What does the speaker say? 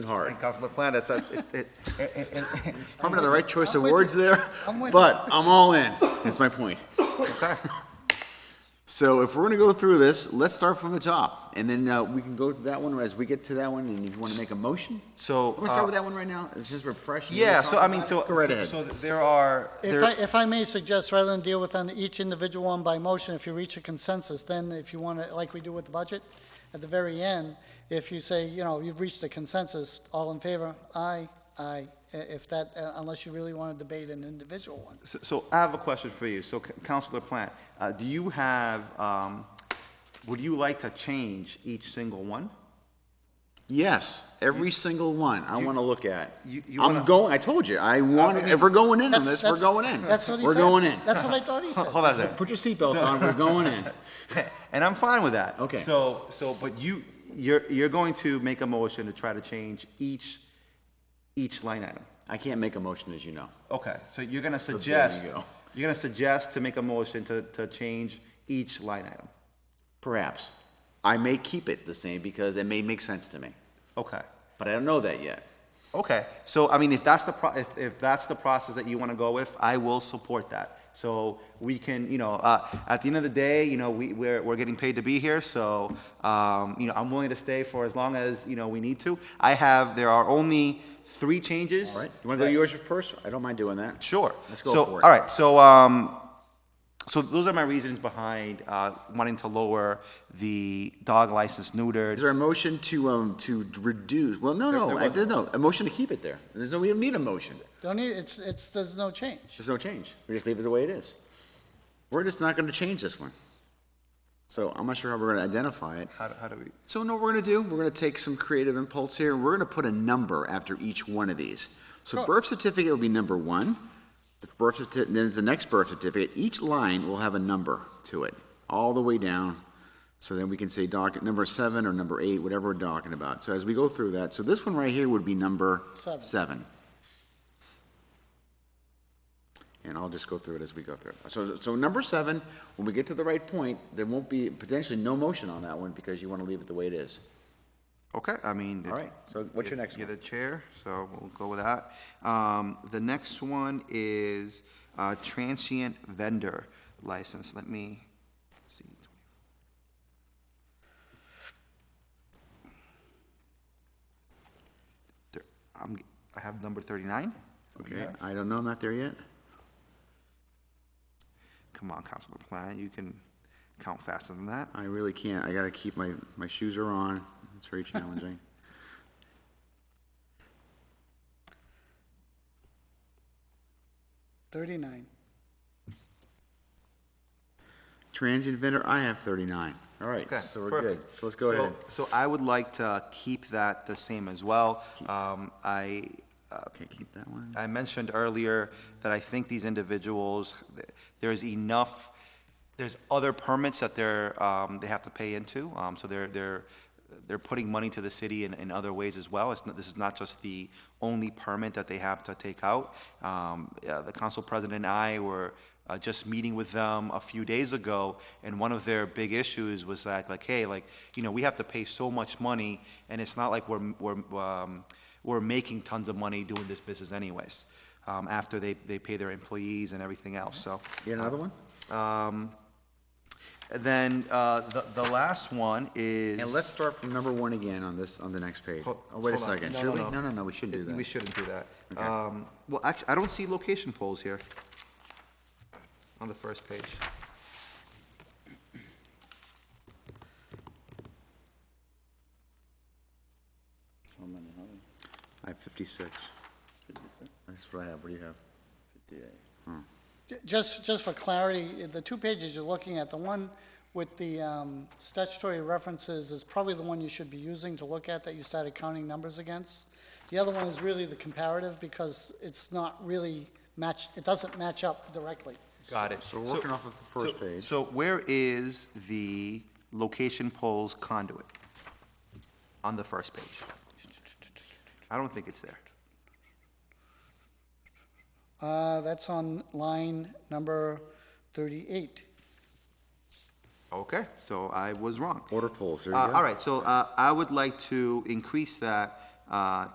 hard. And Councilor Plant, it's, a- it, it, and- and- and- Probably not the right choice of I'm with words there, I'm with but I'm all in, is my point. okay. So if we're gonna go through this, let's start from the top, and then uh, we can go to that one as we get to that one, and if you wanna make a motion? So, We'll start uh, with that one right now, it's just refreshing. Yeah, so I mean, so, Go right ahead. so there are, If there- I, if I may suggest, rather than deal with on each individual one by motion, if you reach a consensus, then if you want to, like we do with the budget, at the very end, if you say, you know, you've reached a consensus, all in favor, aye, aye, i- if that, uh, unless you really want to debate an individual one. so- so I have a question for you. So C- Councilor Plant, uh, do you have, um, would you like to change each single one? Yes, every single one I wanna look at. you- you wanna- I'm going, I told you, I want, if we're going in on That's- this, we're that's- going in. That's what he said. We're going in. That's what I thought he said. Hold on a second. Put your seatbelt on, we're going in. And I'm fine with that. Okay. So, so, but you, you're, you're going to make a motion to try to change each, each line item. I can't make a motion, as you know. Okay, so you're gonna you suggest, go. you're gonna suggest to make a motion to, to change each line item. Perhaps. I may keep it the same because it may make sense to me, Okay. but I don't know that yet. Okay, so I mean, if that's the, pro- if, if that's the process that you want to go with, I will support that. So we can, you know, uh, at the end of the day, you know, we, we're, we're getting paid to be here, so, um, you know, I'm willing to stay for as long as, you know, we need to. I have, there are only three changes. All right, you want to go to yours first? I don't mind doing that. Sure. Let's go So, for it. All right, so, um, so those are my reasons behind, uh, wanting to lower the dog license neutered. Is there a motion to, um, to reduce, well, no, no, there I was did, no, a motion to keep it there. There's no, we don't need a motion. Don't need, it's, it's, there's no change. There's no change. We just leave it the way it is. We're just not gonna change this one. So I'm not sure how we're gonna identify it. How, do- how do we? So know what we're gonna do? We're gonna take some creative impulse here. We're gonna put a number after each one of these. So birth certificate will be number one. The birth certificate, then it's the next birth certificate. Each line will have a number to it, all the way down. So then we can say docket number seven or number eight, whatever we're talking about. So as we go through that, so this one right here would be number Seven. seven. And I'll just go through it as we go through. it. So, so number seven, when we get to the right point, there won't be potentially no motion on that one because you want to leave it the way it is. Okay, I mean. All right, so what's your next You're one? the chair, so we'll go with that. Um, the next one is, uh, transient vendor license. Let me see. There- I'm, I have number thirty-nine. Okay, I don't know, I'm not there yet. Come on, Councilor Plant, you can count faster than that. I really can't, I gotta keep my, my shoes are on, it's very challenging. Thirty-nine. Transient vendor, I have thirty-nine, all right, Okay, so we're good, perfect. so let's go ahead. So I would like to keep that the same as well. Um, I, uh, Okay, keep that one. I mentioned earlier that I think these individuals, th- there's enough, there's other permits that they're, um, they have to pay into. Um, so they're, they're, they're putting money to the city in, in other ways as well. It's, not- this is not just the only permit that they have to take out. Um, yeah, the council president and I were, uh, just meeting with them a few days ago, and one of their big issues was that, like, hey, like, you know, we have to pay so much money, and it's not like we're, we're, um, we're making tons of money doing this business anyways, um, after they, they pay their employees and everything else, so. You got another one? Then, uh, the, the last one is. And let's start from number one again on this, on the next page. Hold- Oh, wait a hold on. second, No, should no, we? no. No, no, no, we shouldn't do We that. shouldn't do that. Um, well, actually, I don't see location polls here on the first page. I have fifty-six. That's what I have, what do you have? J- Just, just for clarity, the two pages you're looking at, the one with the um, statutory references is probably the one you should be using to look at that you started counting numbers against. The other one is really the comparative because it's not really matched, it doesn't match up directly. Got it. So we're working off of the first so- page. So where is the location polls conduit on the first page? I don't think it's there. Uh, That's on line number 38. Okay, so I was wrong. Order polls, there you Uh, go. All right, so uh, I would like to increase that uh,